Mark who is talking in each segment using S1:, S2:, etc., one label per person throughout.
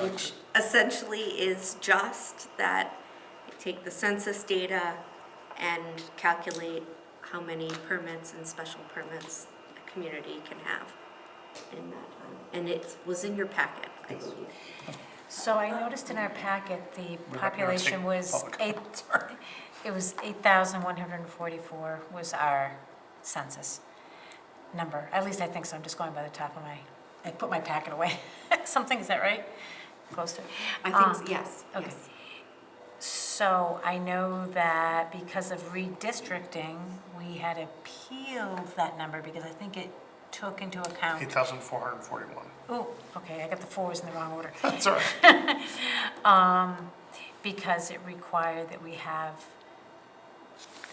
S1: which essentially is just that I take the census data and calculate how many permits and special permits a community can have in that. um, And it was in your packet, I believe.
S2: So I noticed in our packet, the
S3: not noticing
S2: population was
S3: public
S2: eight, it was 8,144 was our census number. At least I think so, I'm just going by the top of my, I put my packet away. Something, is that right? Close to.
S1: I
S2: Um,
S1: think, yes,
S2: okay.
S1: yes.
S2: So I know that because of redistricting, we had appealed that number because I think it took into account,
S3: 8,441.
S2: oh, okay, I got the fours in the wrong order.
S3: That's all right.
S2: Um, because it required that we have,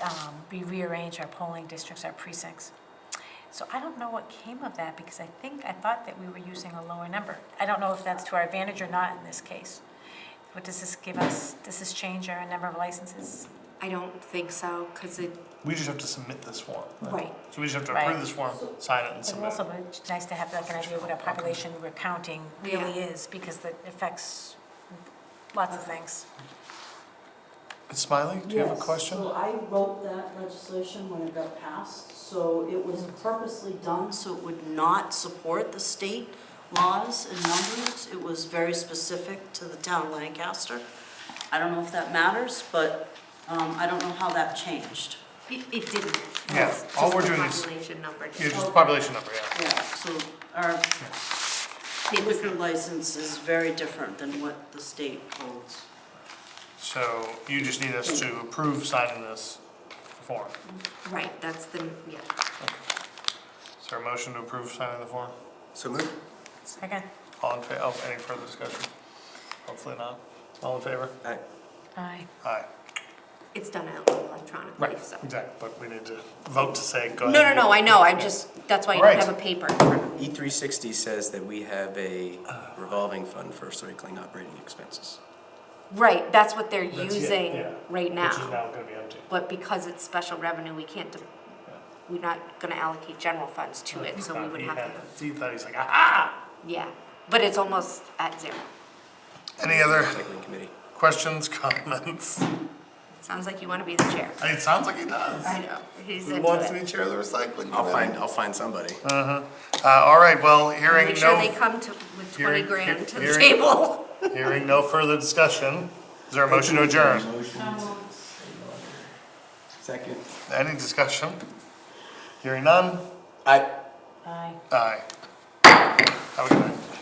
S2: um, we rearrange our polling districts, our precincts. So I don't know what came of that, because I think, I thought that we were using a lower number. I don't know if that's to our advantage or not in this case. What does this give us? Does this change our number of licenses?
S1: I don't think so, because it,
S3: We just have to submit this form.
S1: Right.
S3: So we just have to
S2: Right.
S3: approve this form, sign it, and
S2: It
S3: submit
S2: also
S3: it.
S2: would be nice to have like an idea what our population we're counting really is, because that affects lots of things.
S3: Ms. Smiley, do you have a
S4: Yes,
S3: question?
S4: So I wrote that legislation when it got passed, so it was purposely done so it would not support the state laws and numbers. It was very specific to the town of Lancaster. I don't know if that matters, but um, I don't know how that changed.
S1: it it didn't.
S3: Yeah,
S1: It's
S3: all
S1: just
S3: we're
S1: the
S3: doing is-
S1: Population number.
S3: Yeah, just the population number, yeah.
S4: Yeah, so our liquor license is very different than what the state holds.
S3: So you just need us to approve signing this form.
S1: Right, that's the, yeah.
S3: Is there a motion to approve signing the form?
S5: So moved.
S2: Second?
S3: All in favor, oh, any further discussion? Hopefully not. All in favor?
S5: Aye.
S2: Aye.
S3: Aye.
S1: It's done electronically, so.
S3: Exactly, but we need to vote to say, go
S1: No,
S3: ahead.
S1: no, no, I know, I just, that's why I don't
S3: Right.
S1: have a paper in front of me.
S5: E three sixty says that we have a revolving fund for cycling operating expenses.
S1: Right, that's what they're
S3: That's it,
S1: using
S3: yeah.
S1: right
S3: Which is
S1: now.
S3: now gonna be empty.
S1: But because it's special revenue, we can't, de- we're not gonna allocate general funds to it, so we would
S3: He
S1: have
S3: had
S1: to,
S3: it. He thought, he's like, ah!
S1: yeah. But it's almost at zero.
S3: Any other
S5: Cycling committee.
S3: questions, comments?
S1: Sounds like you wanna be the chair.
S3: It sounds like he does.
S1: I know, he's
S3: He
S1: into
S3: wants to
S1: it.
S3: be chair of the recycling.
S5: I'll
S3: committee.
S5: find, I'll find somebody.
S3: Uh, all right, well, hearing
S1: Make sure
S3: no,
S1: they come to, with twenty
S3: Hearing-
S1: grand to the
S3: hearing-
S1: table.
S3: hearing no further discussion, is there a motion to adjourn?
S5: Second.
S3: Any discussion? Hearing none?
S5: Aye.
S2: Aye.
S3: Aye. Have a good night.